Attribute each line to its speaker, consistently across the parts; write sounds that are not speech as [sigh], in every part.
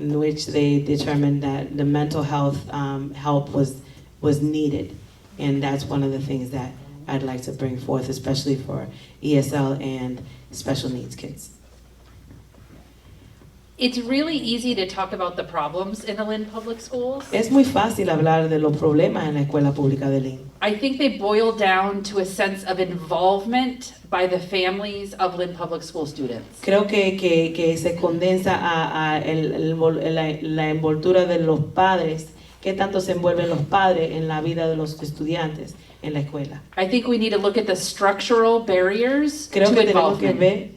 Speaker 1: in which they determined that the mental health um, help was was needed, and that's one of the things that I'd like to bring forth, especially for ESL and special needs kids.
Speaker 2: It's really easy to talk about the problems in the Lynn Public Schools.
Speaker 1: Es muy fácil hablar de los problemas en la escuela pública de Lynn.
Speaker 2: I think they boil down to a sense of involvement by the families of Lynn Public School students.
Speaker 1: Creo que, que, que se condensa a, a el- el vol- la, la envoltura de los padres, qué tanto se envuelven los padres en la vida de los estudiantes en la escuela.
Speaker 2: I think we need to look at the structural barriers
Speaker 1: Creo
Speaker 2: to
Speaker 1: que tenemos que
Speaker 2: involvement.
Speaker 1: ver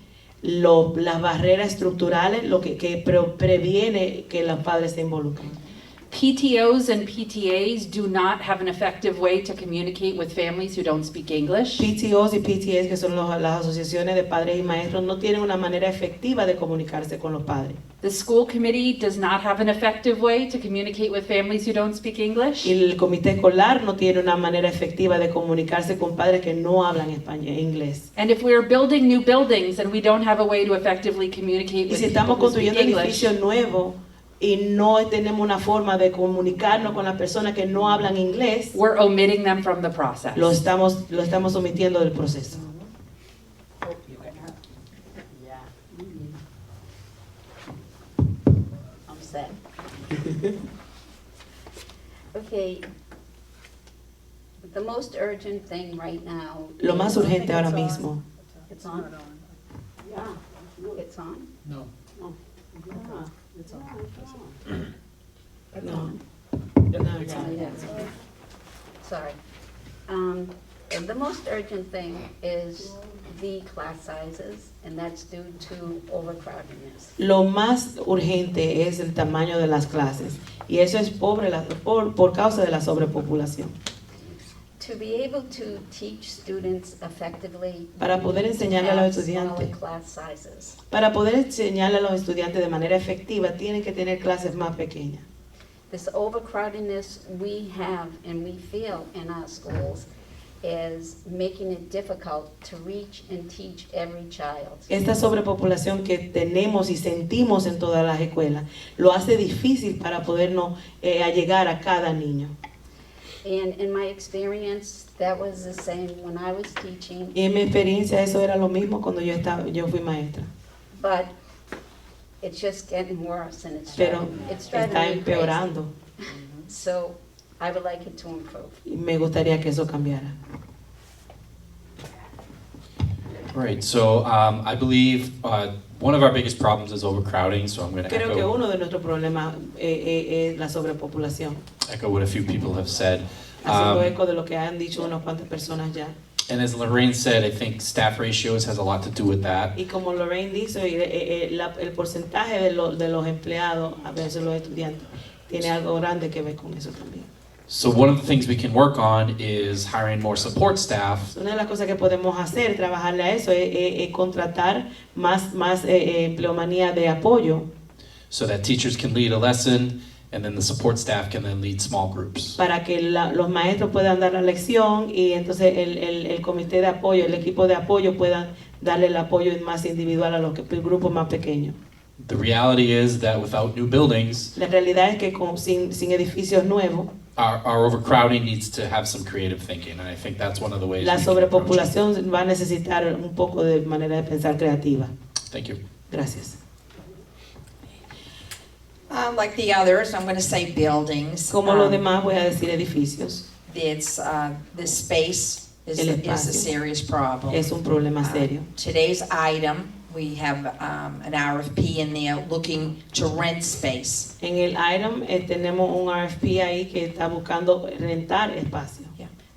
Speaker 1: lo- las barreras estructurales, lo que, que pre- previene que los padres se involucren.
Speaker 2: PTOs and PTAs do not have an effective way to communicate with families who don't speak English.
Speaker 1: PTOs y PTAs, que son los- las asociaciones de padres y maestros, no tienen una manera efectiva de comunicarse con los padres.
Speaker 2: The school committee does not have an effective way to communicate with families who don't speak English.
Speaker 1: Y el comité escolar no tiene una manera efectiva de comunicarse con padres que no hablan español, inglés.
Speaker 2: And if we're building new buildings and we don't have a way to effectively communicate
Speaker 1: Y
Speaker 2: with
Speaker 1: si
Speaker 2: people
Speaker 1: estamos
Speaker 2: who speak
Speaker 1: construyendo
Speaker 2: English,
Speaker 1: edificios nuevos y no tenemos una forma de comunicarnos con las personas que no hablan inglés,
Speaker 2: we're omitting them from the process.
Speaker 1: lo estamos, lo estamos omitiendo del proceso.
Speaker 3: Yeah. I'm set. [laughs] Okay. The most urgent thing right now.
Speaker 1: Lo más
Speaker 3: is-
Speaker 1: urgente ahora mismo
Speaker 3: It's on? Yeah. It's on? Oh.
Speaker 4: No.
Speaker 3: Yeah, It's on. It's
Speaker 1: No.
Speaker 3: on.
Speaker 1: No, it's
Speaker 3: Yeah,
Speaker 1: not.
Speaker 3: it is. Sorry. Um, and The most urgent thing is the class sizes, and that's due to overcrowdedness.
Speaker 1: Lo más urgente es el tamaño de las clases y eso es pobre la- por, por causa de la sobrepopulación.
Speaker 3: To be able to teach students effectively.
Speaker 1: Para poder enseñarle a los estudiantes.
Speaker 3: Smaller class sizes.
Speaker 1: Para poder enseñarle a los estudiantes de manera efectiva, tienen que tener clases más pequeñas.
Speaker 3: This overcrowdedness we have and we feel in our schools is making it difficult to reach and teach every child.
Speaker 1: Esta sobrepopulación que tenemos y sentimos en todas las escuelas lo hace difícil para podernos eh, allegar a cada niño.
Speaker 3: And in my experience, that was the same when I was teaching,
Speaker 1: Y en mi experiencia eso era lo mismo cuando yo, estaba, yo fui maestra.
Speaker 3: but it's just getting worse and it's
Speaker 1: Pero
Speaker 3: driving, it's driving
Speaker 1: está
Speaker 3: me crazy.
Speaker 1: empeorando
Speaker 3: So I would like it to improve.
Speaker 1: y me gustaría que eso cambiara.
Speaker 5: Right, so um, I believe uh, one of our biggest problems is overcrowding, so I'm going to
Speaker 1: Creo que
Speaker 5: echo,
Speaker 1: uno de nuestros problemas eh, eh, es la sobrepopulación,
Speaker 5: echo what a few people have said.
Speaker 1: haciendo
Speaker 5: Um,
Speaker 1: eco de lo que han dicho unas cuantas personas ya.
Speaker 5: And as Lorraine said, I think staff ratios has a lot to do with that.
Speaker 1: Y como Lorraine dice, eh, eh, la- el porcentaje de, lo- de los empleados, a veces los estudiantes, tiene algo grande que ver con eso también.
Speaker 5: So one of the things we can work on is hiring more support staff
Speaker 1: Una de las cosas que podemos hacer, trabajarle a eso, es, es- es contratar más, más eh, eh, empleomanía de apoyo
Speaker 5: so that teachers can lead a lesson and then the support staff can then lead small groups.
Speaker 1: para que la- los maestros puedan dar la lección y entonces el, el- el comité de apoyo, el equipo de apoyo puedan darle el apoyo más individual a los que- grupos más pequeños.
Speaker 5: The reality is that without new buildings,
Speaker 1: La realidad es que con- sin, sin edificios nuevos,
Speaker 5: our, our overcrowding needs to have some creative thinking, and I think that's one of the ways.
Speaker 1: la
Speaker 5: we can approach it.
Speaker 1: sobrepopulación va a necesitar un poco de manera de pensar creativa.
Speaker 5: Thank you.
Speaker 1: Gracias.
Speaker 6: Uh, like the others, I'm going to say buildings.
Speaker 1: Como los
Speaker 6: Um,
Speaker 1: demás, voy a decir edificios.
Speaker 6: It's, uh, this space is,
Speaker 1: El
Speaker 6: is
Speaker 1: espacio.
Speaker 6: a serious problem.
Speaker 1: Es un problema serio.
Speaker 6: Uh, Today's item, we have, um, an RFP in there looking to rent space.
Speaker 1: En el item eh, tenemos un RFP ahí que está buscando rentar espacio.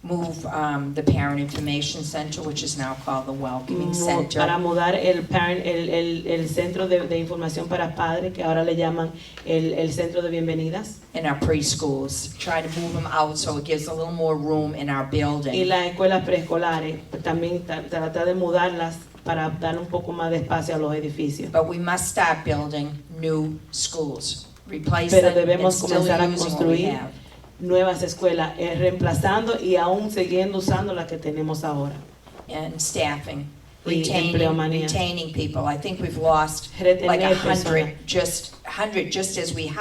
Speaker 6: Move, um, the Parent Information Center, which is now called the Welcoming
Speaker 1: Mu-
Speaker 6: Center.
Speaker 1: Para mudar el, parent- el, el- el centro de, de información para padres, que ahora le llaman el, el centro de bienvenidas,
Speaker 6: In our preschools, try to move them out so it gives a little more room in our
Speaker 1: y
Speaker 6: building.
Speaker 1: las escuelas preescolares, pues, también tra- tratar de mudarlas para dar un poco más de espacio a los edificios.
Speaker 6: But we must start building new schools, replace
Speaker 1: Pero
Speaker 6: it and
Speaker 1: debemos
Speaker 6: still
Speaker 1: comenzar a
Speaker 6: using what we
Speaker 1: construir.
Speaker 6: have.
Speaker 1: Nuevas escuelas, eh, reemplazando y aún siguiendo usando las que tenemos ahora.
Speaker 6: and staffing.
Speaker 1: y
Speaker 6: retaining,
Speaker 1: empleomanía.
Speaker 6: retaining people. I think we've lost
Speaker 1: Retener
Speaker 6: like a
Speaker 1: personas.
Speaker 6: hundred, just, hundred, just as we